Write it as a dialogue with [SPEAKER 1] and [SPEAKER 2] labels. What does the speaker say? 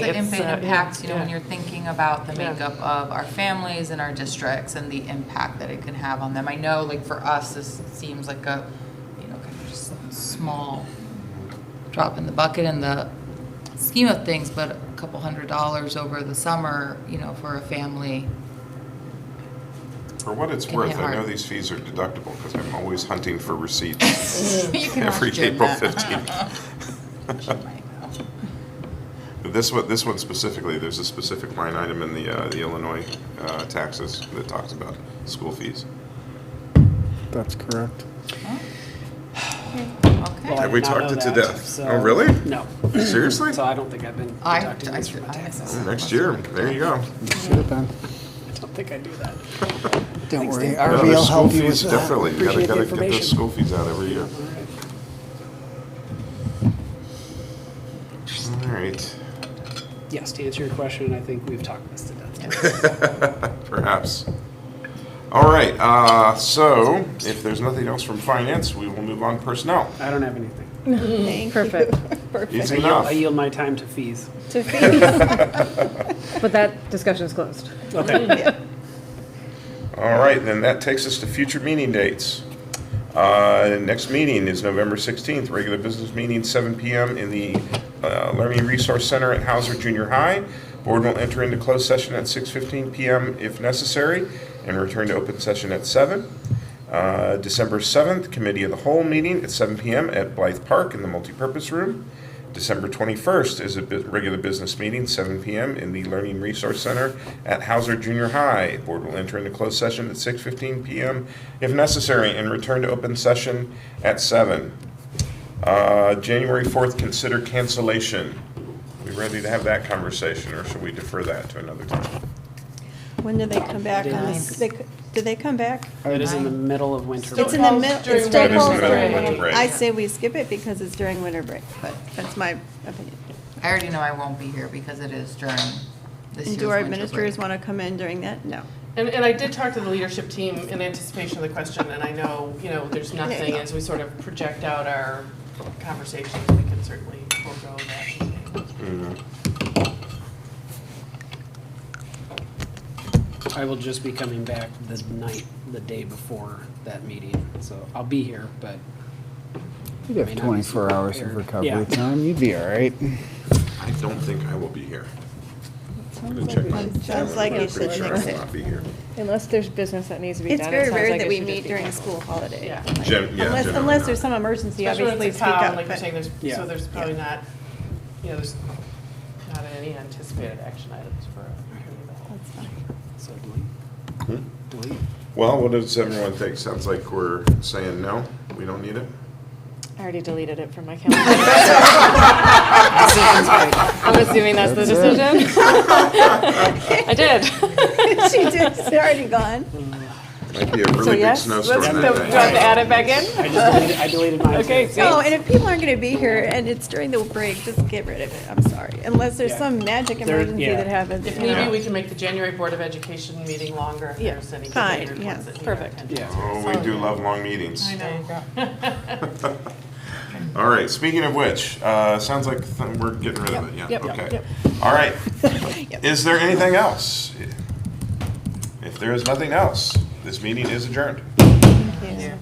[SPEAKER 1] It's the
[SPEAKER 2] it's, uh,
[SPEAKER 1] impact- impact, you know, when
[SPEAKER 2] yeah.
[SPEAKER 1] you're thinking about the
[SPEAKER 2] Yeah.
[SPEAKER 1] makeup of our families and our districts and the impact that it can have on them. I know, like, for us, this seems like a, you know, kind of just small drop in the bucket in the scheme of things, but a couple hundred dollars over the summer, you know, for a family.
[SPEAKER 3] For what it's
[SPEAKER 1] Can
[SPEAKER 3] worth,
[SPEAKER 1] hit
[SPEAKER 3] I know
[SPEAKER 1] hard.
[SPEAKER 3] these fees are deductible because I'm always hunting for receipts
[SPEAKER 1] You can
[SPEAKER 3] every
[SPEAKER 1] ask Jim
[SPEAKER 3] April
[SPEAKER 1] that.
[SPEAKER 3] 15th.
[SPEAKER 1] She might know.
[SPEAKER 3] This one, this one specifically, there's a specific line item in the, uh, the Illinois uh, taxes that talks about school fees.
[SPEAKER 4] That's correct. Well, I
[SPEAKER 1] Okay.
[SPEAKER 3] Have we
[SPEAKER 4] did not
[SPEAKER 3] talked
[SPEAKER 4] know
[SPEAKER 3] it to
[SPEAKER 4] that,
[SPEAKER 3] death?
[SPEAKER 4] so-
[SPEAKER 3] Oh, really?
[SPEAKER 4] No.
[SPEAKER 3] Seriously?
[SPEAKER 4] So I don't think I've been
[SPEAKER 1] I,
[SPEAKER 4] deducting these from my taxes.
[SPEAKER 1] I,
[SPEAKER 3] Next year, there you go.
[SPEAKER 5] Should have been.
[SPEAKER 4] I don't think I do that.
[SPEAKER 5] Don't
[SPEAKER 4] Thanks,
[SPEAKER 5] worry,
[SPEAKER 4] Dave.
[SPEAKER 3] No,
[SPEAKER 5] RV
[SPEAKER 3] there's
[SPEAKER 5] will
[SPEAKER 3] school
[SPEAKER 5] help you
[SPEAKER 3] fees
[SPEAKER 5] with that.
[SPEAKER 3] Definitely, you gotta,
[SPEAKER 4] Appreciate the
[SPEAKER 3] gotta get those
[SPEAKER 4] information.
[SPEAKER 3] school fees out every year.
[SPEAKER 4] All right.
[SPEAKER 3] All right,
[SPEAKER 4] Yes, to answer your question, I think we've talked this to death.
[SPEAKER 3] perhaps. All right, uh, so if there's nothing else from finance, we will move on to personnel.
[SPEAKER 4] I don't have anything.
[SPEAKER 6] Perfect.
[SPEAKER 3] Easy
[SPEAKER 4] I yield,
[SPEAKER 3] enough.
[SPEAKER 4] I yield my time to fees.
[SPEAKER 6] But that discussion is closed.
[SPEAKER 4] Okay.
[SPEAKER 3] All right, then that takes us to future meeting dates. Uh, Next meeting is November 16th, regular business meeting, 7 PM in the uh, Learning Resource Center at Hauser Junior High. Board will enter into closed session at 6:15 PM if necessary, and return to open session at 7. Uh, December 7th, Committee of the Whole meeting at 7 PM at Blythe Park in the multipurpose room. December 21st is a bu- regular business meeting, 7 PM in the Learning Resource Center at Hauser Junior High. Board will enter into closed session at 6:15 PM if necessary and return to open session at 7. Uh, January 4th, consider cancellation. We ready to have that conversation or should we defer that to another time?
[SPEAKER 7] When do they come back on this? They c- Do they come back?
[SPEAKER 4] It is in the middle of winter. break.
[SPEAKER 7] It's in the middle, it's still
[SPEAKER 3] It is in
[SPEAKER 7] cold.
[SPEAKER 3] the middle of winter break.
[SPEAKER 7] I say we skip it because it's during winter break, but that's my opinion.
[SPEAKER 1] I already know I won't be here because it is during this
[SPEAKER 7] And
[SPEAKER 1] year's
[SPEAKER 7] do our
[SPEAKER 1] winter break.
[SPEAKER 7] administrators want to come in during that? No.
[SPEAKER 2] And, and I did talk to the leadership team in anticipation of the question, and I know, you know, there's nothing, as we sort of project out our conversations, we can certainly forego that.
[SPEAKER 4] I will just be coming back the night, the day before that meeting, so I'll be here, but
[SPEAKER 5] You'd have 24 hours of
[SPEAKER 4] Yeah.
[SPEAKER 5] recovery time, you'd be all right.
[SPEAKER 3] I don't think I will be here.
[SPEAKER 7] Sounds like
[SPEAKER 3] I'm
[SPEAKER 7] it should
[SPEAKER 3] pretty sure I
[SPEAKER 7] fix
[SPEAKER 3] will
[SPEAKER 7] it.
[SPEAKER 3] not be here.
[SPEAKER 6] Unless there's business that needs to be
[SPEAKER 7] It's
[SPEAKER 6] done. it
[SPEAKER 7] very
[SPEAKER 6] sounds
[SPEAKER 7] rare
[SPEAKER 6] like
[SPEAKER 7] that
[SPEAKER 6] it
[SPEAKER 7] we
[SPEAKER 6] should just
[SPEAKER 7] meet
[SPEAKER 6] be
[SPEAKER 7] during
[SPEAKER 6] canceled.
[SPEAKER 7] school holiday.
[SPEAKER 2] Yeah.
[SPEAKER 7] Like,
[SPEAKER 3] Gen- yeah,
[SPEAKER 7] Unless,
[SPEAKER 3] generally
[SPEAKER 7] unless
[SPEAKER 3] not.
[SPEAKER 7] there's some emergency,
[SPEAKER 2] Especially
[SPEAKER 7] obviously
[SPEAKER 2] with the
[SPEAKER 7] speak up.
[SPEAKER 2] town, like you're
[SPEAKER 7] but-
[SPEAKER 2] saying, there's,
[SPEAKER 4] Yeah.
[SPEAKER 2] so there's probably not, you know, there's not any anticipated action items for. a committee of the whole.
[SPEAKER 7] That's fine.
[SPEAKER 4] so do we?
[SPEAKER 3] Mm-hmm.
[SPEAKER 4] Do we?
[SPEAKER 3] Well, what does everyone think? Sounds like we're saying no, we don't need it?
[SPEAKER 6] I already deleted it from my calendar. I'm assuming that's the decision. I did.
[SPEAKER 7] She did, it's already gone.
[SPEAKER 3] Might be a really big
[SPEAKER 6] yes,
[SPEAKER 3] snowstorm
[SPEAKER 6] let's
[SPEAKER 3] that
[SPEAKER 6] go-
[SPEAKER 3] day.
[SPEAKER 6] Do I have to add it back in?
[SPEAKER 4] I just deleted, I deleted mine.
[SPEAKER 6] Okay,
[SPEAKER 4] too.
[SPEAKER 6] see?
[SPEAKER 7] Oh, and if people aren't going to be here and it's during the break, just get rid of it. I'm sorry. Unless there's
[SPEAKER 4] Yeah.
[SPEAKER 7] some magic
[SPEAKER 4] There-
[SPEAKER 7] emergency
[SPEAKER 4] yeah.
[SPEAKER 7] that happens.
[SPEAKER 2] If
[SPEAKER 7] you know.
[SPEAKER 2] maybe we can make the January Board of Education meeting longer if
[SPEAKER 6] Yeah.
[SPEAKER 2] there's any.
[SPEAKER 7] Fine,
[SPEAKER 2] later
[SPEAKER 7] yeah.
[SPEAKER 2] ones that need our
[SPEAKER 6] Perfect.
[SPEAKER 2] attention.
[SPEAKER 4] Yeah,
[SPEAKER 3] Oh, we do love long meetings.
[SPEAKER 2] I know.
[SPEAKER 3] All right, speaking of which, uh, sounds like th- we're getting rid of it, yeah,
[SPEAKER 6] Yep, yep,
[SPEAKER 3] okay.
[SPEAKER 6] yep.
[SPEAKER 3] All right, is there anything else? If there is nothing else, this meeting is adjourned.
[SPEAKER 2] Yeah.